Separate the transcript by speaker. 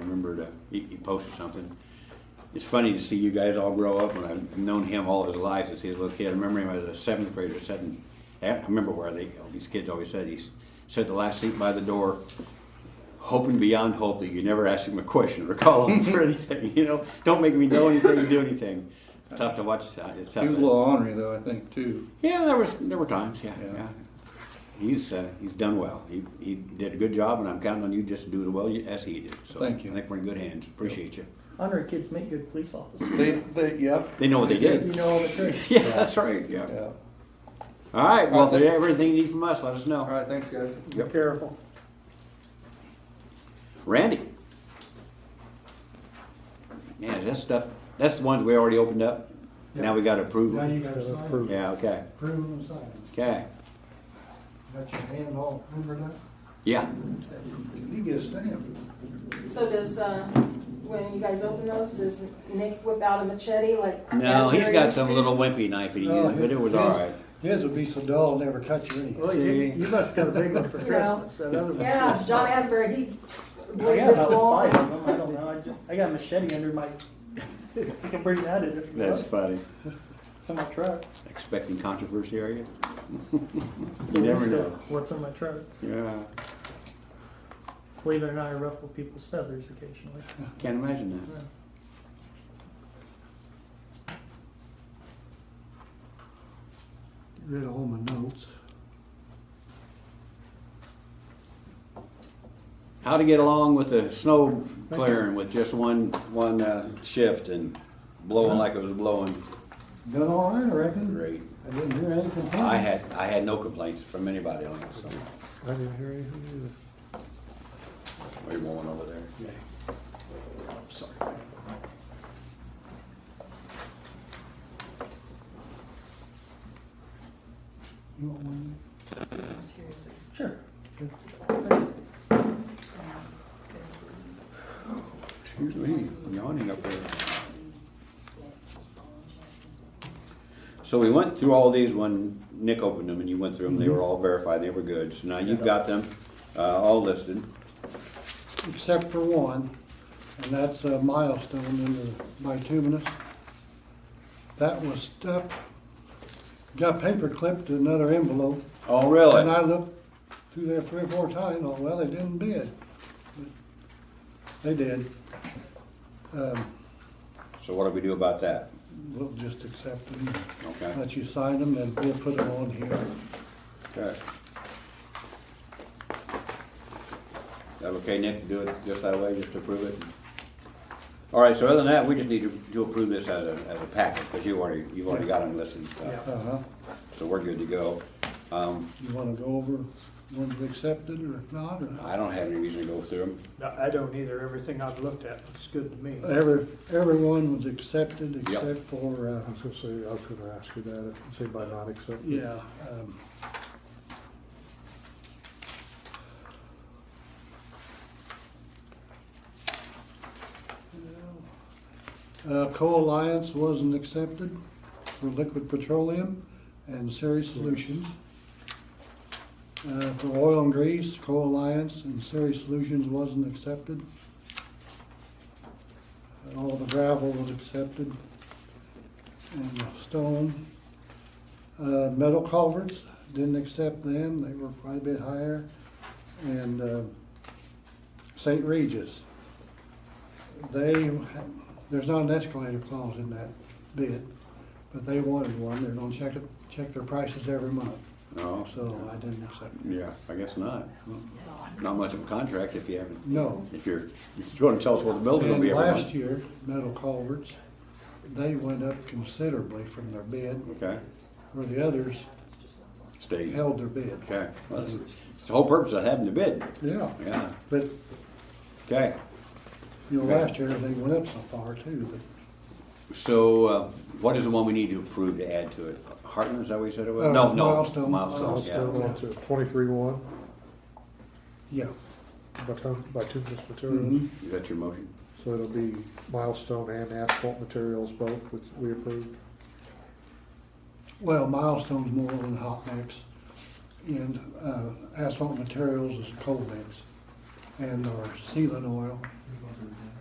Speaker 1: remember to, he, he posted something. It's funny to see you guys all grow up, and I've known him all his life since he was a little kid. I remember him as a seventh grader sitting, I remember where they, these kids always said, he sat the last seat by the door, hoping beyond hope that you never ask him a question or call him for anything, you know? Don't make me know anything or do anything. It's tough to watch, uh, it's tough.
Speaker 2: He was a
Speaker 1: to-
Speaker 2: little ornery though, I think, too.
Speaker 1: yeah, there was there were times. Yeah, yeah.
Speaker 2: Yeah.
Speaker 1: He's uh, he's done well. He he did a good job, and I'm counting on you just to do as well as he did. So
Speaker 2: Thank you.
Speaker 1: I think we're in good hands. Appreciate you.
Speaker 3: Honored kids make good police officers.
Speaker 2: They, they, yep,
Speaker 1: They know what they
Speaker 3: You
Speaker 1: did.
Speaker 3: know all the tricks.
Speaker 1: Yeah, that's right. Yeah.
Speaker 2: yeah.
Speaker 1: All right. Well, if there's everything you need from us, let us know.
Speaker 2: All right, thanks, guys.
Speaker 3: Be
Speaker 1: Yep.
Speaker 3: careful.
Speaker 1: Randy. Man, is that stuff. That's the ones we already opened up. Now we got to approve.
Speaker 4: Now you
Speaker 1: them.
Speaker 4: gotta sign it,
Speaker 1: Yeah. Okay.
Speaker 4: approve and sign it.
Speaker 1: Okay.
Speaker 4: Got your hand all over that?
Speaker 1: Yeah.
Speaker 4: You get a stamp.
Speaker 5: So does, uh, when you guys open those, does Nick whip out a machete like?
Speaker 1: No, he's
Speaker 5: Asbury
Speaker 1: got
Speaker 5: used
Speaker 1: some
Speaker 5: to?
Speaker 1: little wimpy knife that he
Speaker 4: No,
Speaker 1: used, but it was all right.
Speaker 4: His his would be so dull, it'd never cut you anything.
Speaker 1: Well, you- you
Speaker 6: must got a big one for
Speaker 5: Christmas,
Speaker 6: that other
Speaker 5: Yeah, John Asbury, he
Speaker 3: I
Speaker 5: blade
Speaker 3: got
Speaker 5: this
Speaker 3: about
Speaker 5: long.
Speaker 3: five of them. I don't know. I, ju- I got a machete under my. I can bring that in if you
Speaker 1: That's
Speaker 3: want.
Speaker 1: funny.
Speaker 3: It's in my truck.
Speaker 1: Expecting controversy, are you?
Speaker 3: It's
Speaker 1: You
Speaker 3: a
Speaker 1: never
Speaker 3: waste
Speaker 1: know.
Speaker 3: of what's in my truck.
Speaker 1: Yeah,
Speaker 3: Believe it or not, I ruffle people's feathers occasionally.
Speaker 1: can't imagine that.
Speaker 4: Get Rid of all my notes.
Speaker 1: How to get along with the snow clearing with just one, one uh, shift and blowing like it was blowing?
Speaker 4: Done all right, I reckon.
Speaker 1: Great.
Speaker 4: I didn't hear any complaints.
Speaker 1: I had, I had no complaints from anybody on it, so.
Speaker 6: I didn't hear anything
Speaker 1: There's one over there. Sorry.
Speaker 4: You want one?
Speaker 3: Sure.
Speaker 1: Excuse me, yawning up there. So we went through all these when Nick opened them and you went through them, they were all verified, they were good. So now you've got them, uh, all listed.
Speaker 4: Except for one, and that's a milestone in the bituminous. That was stuck, got paper clipped to another envelope.
Speaker 1: Oh, really?
Speaker 4: And I looked through there three or four times, oh, well, they didn't bid. But They did. Um,
Speaker 1: So what do we do about that?
Speaker 4: We'll just accept them,
Speaker 1: Okay.
Speaker 4: let you sign them, and we'll put them on here.
Speaker 1: Okay. That okay, Nick, to do it just that way, just to approve it? All right, so other than that, we just need to, to approve this as a, as a package, because you already, you've already got them listed and stuff.
Speaker 4: Uh-huh.
Speaker 1: So we're good to go. Um,
Speaker 4: You wanna go over ones we accepted or not, or not?
Speaker 1: I don't have any reason to go through them.
Speaker 6: I don't either. Everything I've looked at looks good to me.
Speaker 4: Every, everyone was accepted
Speaker 1: Yep.
Speaker 4: except for,
Speaker 6: I
Speaker 4: uh,
Speaker 6: was gonna say, I was gonna ask you that, if- say uh, by not accepting.
Speaker 4: yeah, um, uh, Co-Alliance wasn't accepted for liquid petroleum and Series Solutions. Uh, for oil and grease, Co-Alliance and Series Solutions wasn't accepted. Uh, All the gravel was accepted. And the stone. Uh, metal culverts, didn't accept them, they were quite a bit higher. And, uh, St. Regis. They, there's not an escalator clause in that bid, but they wanted one, they're gonna check, it, check their prices every month,
Speaker 1: No,
Speaker 4: so I didn't accept it.
Speaker 1: yeah, I guess not. Not much of a contract if you haven't,
Speaker 4: No.
Speaker 1: if you're, if you're gonna tell us what the bill's gonna
Speaker 4: And
Speaker 1: be every month.
Speaker 4: last year, metal culverts, they went up considerably from their bid,
Speaker 1: Okay,
Speaker 4: where the others
Speaker 1: stayed.
Speaker 4: held their bid.
Speaker 1: Okay, well, that's, it's the whole purpose of having the bid,
Speaker 4: Yeah,
Speaker 1: yeah,
Speaker 4: but,
Speaker 1: okay.
Speaker 4: you know, last year, they went up so far too, but
Speaker 1: So, uh, what is the one we need to approve to add to it? Hartman, is that what you said it was?
Speaker 4: Uh,
Speaker 1: No, no.
Speaker 4: Milestone.
Speaker 1: Milestone,
Speaker 6: Milestone
Speaker 1: Oh, yeah.
Speaker 6: on to twenty-three one,
Speaker 4: Yeah,
Speaker 6: by ton, by two different materials.
Speaker 4: Mhm.
Speaker 1: Is that your motion?
Speaker 6: So it'll be milestone and asphalt materials both that we approved.
Speaker 4: well, milestone's more than hot mix, and uh, asphalt materials is cold mix, and our sealant oil